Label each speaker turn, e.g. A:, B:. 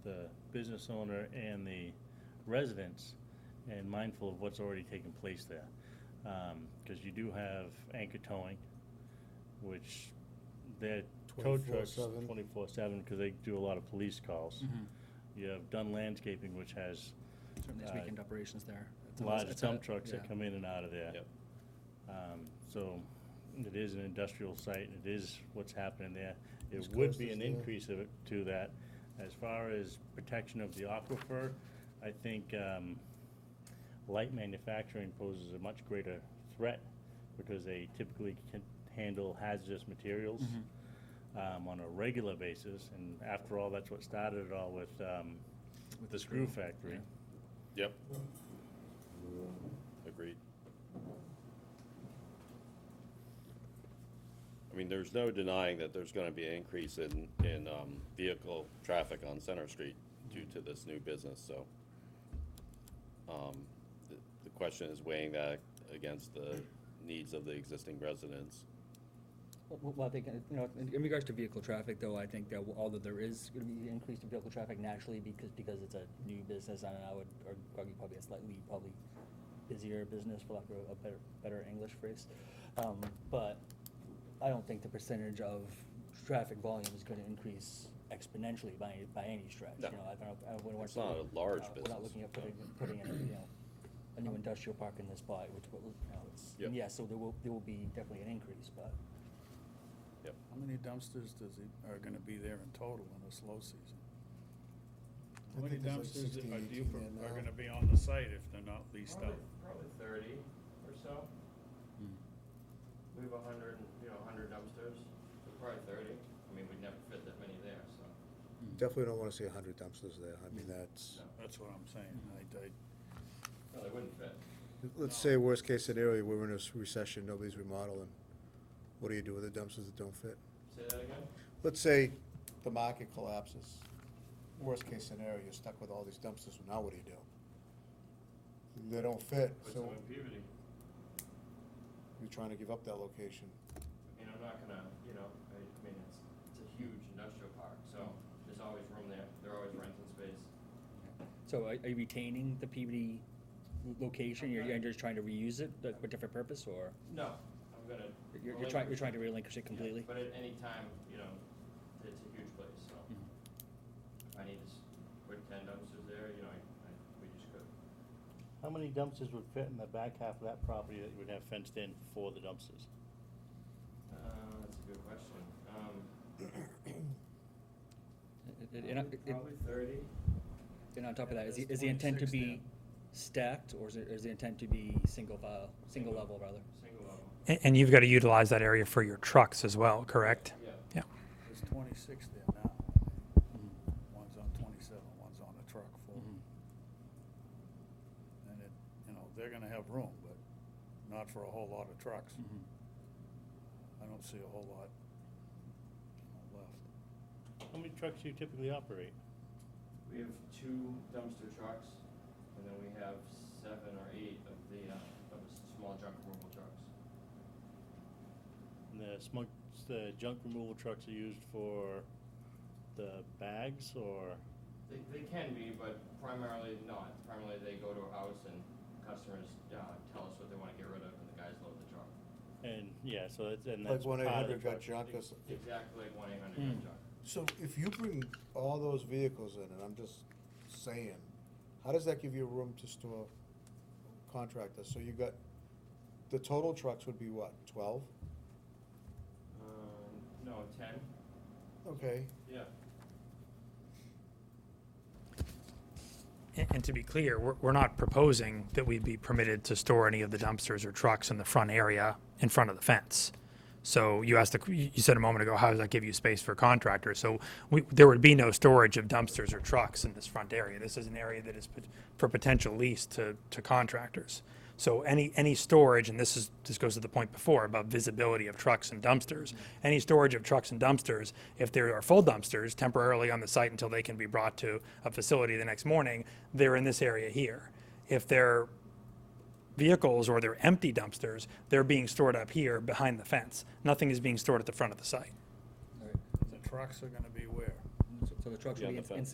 A: business owner and the residents and mindful of what's already taken place there. Because you do have anchor towing, which their tow trucks
B: 24/7.
A: twenty-four seven, because they do a lot of police calls.
C: Mhm.
A: You have Dunn Landscaping, which has
C: Certainly has
A: Uh,
C: weekend operations there. It's a-
A: large
C: it's a-
A: dump trucks that
C: yeah.
A: come in and out of there.
D: Yep.
A: Um, So it is an industrial site, and it is what's happening there. It
B: It's
A: would
B: close
A: be
B: as
A: an
B: there.
A: increase of it to that. As far as protection of the aquifer, I think um, light manufacturing poses a much greater threat because they typically can handle hazardous materials um, on a regular basis. And after all, that's what started it all with um,
C: With
A: the screw factory.
D: Yep. Agreed. I mean, there's no denying that there's gonna be an increase in, in, um, vehicle traffic on Center Street due to this new business, so. Um, the, the question is weighing that against the needs of the existing residents.
E: Well, well, I think, uh, you know, in in regards to vehicle traffic, though, I think that although there is going to be increased vehicle traffic naturally because, because it's a new business, and I would ar- argue probably a slightly, probably busier business, for lack of a better, better English phrase. Um, But I don't think the percentage of traffic volume is going to increase exponentially by, any- by any stretch.
D: No.
E: You know, I don't, I wouldn't want
D: It's
E: to.
D: not a large
E: uh, We're not
D: business,
E: looking at
D: no.
E: putting, putting in, you know, a new industrial park in this spot, which will, you know, it's,
D: Yep.
E: yeah, so there will, there will be definitely an increase, but.
D: Yep,
F: How many dumpsters does it, are gonna be there in total in this low season?
B: I
F: How many
B: think there's like
F: dumpsters
B: 16,
F: are you,
B: 18
F: pro-
B: there
F: are
B: now.
F: gonna be on the site if they're not leased out?
G: Probably thirty or so. We have a hundred, you know, a hundred dumpsters, so probably thirty. I mean, we'd never fit that many there, so.
B: Definitely don't wanna see a hundred dumpsters there, I mean, that's,
F: That's what I'm saying, I, I,
G: No, they wouldn't fit.
B: let's say worst case scenario, we're in a s- recession, nobody's remodeling. What do you do with the dumpsters that don't fit?
G: Say that again?
B: Let's say the market collapses, worst case scenario, you're stuck with all these dumpsters, now what do you do? They don't fit,
G: Put
B: so
G: some in Peabody.
B: you're trying to give up that location.
G: I mean, I'm not gonna, you know, I, I mean, it's, it's a huge industrial park, so there's always room there. They're always renting space.
E: So are are you retaining the PBD lo- location, you're, you're just trying to reuse it, like, for a different purpose, or
G: No, I'm gonna.
E: you're, you're
G: relinquish-
E: trying, you're trying to relinquish it
G: Yeah,
E: completely?
G: But at any time, you know, it's a huge place, so.
E: Mhm.
G: If I need to s- put ten dumpsters there, you know, I, I, we just could.
A: How many dumpsters would fit in the back half of that property that you would have fenced in for the dumpsters?
G: Uh, that's a good question. Um,
E: And- and- and-
G: probably thirty.
E: And on top of that, is, the-
F: That's
E: is the intent to be
F: 26
E: stacked, or is it, is the intent to be single file, single level, rather?
G: Single level.
H: And, and you've got to utilize that area for your trucks as well, correct?
G: Yeah.
H: Yeah.
F: there's twenty-six there now. One's on twenty-seven, one's on a truck full.
D: Mm-hmm.
F: And it, you know, they're gonna have room, but not for a whole lot of trucks. I don't see a whole lot you know, left.
A: How many trucks do you typically operate?
G: We have two dumpster trucks, and then we have seven or eight of the, uh, of the s- small junk removal trucks.
A: And the smug, the junk removal trucks are used for the bags or,
G: They, they can be, but primarily not. Primarily, they go to a house and customers, uh, tell us what they wanna get rid of, and the guys load the truck.
A: and, yeah, so that's, and
B: Like
A: that's
B: one
A: part of the
B: eight hundred got
A: truck.
B: junk or s-
G: Exactly like one eight hundred junk.
B: So if you bring all those vehicles in, and I'm just saying, how does that give you room to store contractors? So you got, the total trucks would be what, twelve?
G: Um, no, ten,
B: Okay,
G: yeah.
H: And, and to be clear, we're, we're not proposing that we be permitted to store any of the dumpsters or trucks in the front area in front of the fence. So you asked, the, you said a moment ago, how does that give you space for contractors? So we, there would be no storage of dumpsters or trucks in this front area. This is an area that is pot- for potential lease to, to contractors. So any, any storage, and this is, this goes to the point before about visibility of trucks and dumpsters. Any storage of trucks and dumpsters, if there are full dumpsters temporarily on the site until they can be brought to a facility the next morning, they're in this area here. If they're vehicles or they're empty dumpsters, they're being stored up here behind the fence. Nothing is being stored at the front of the site.
E: All right.
F: The trucks are gonna be where?
E: So- So the trucks
D: Yeah,
E: will be
D: the
E: in-
D: fence.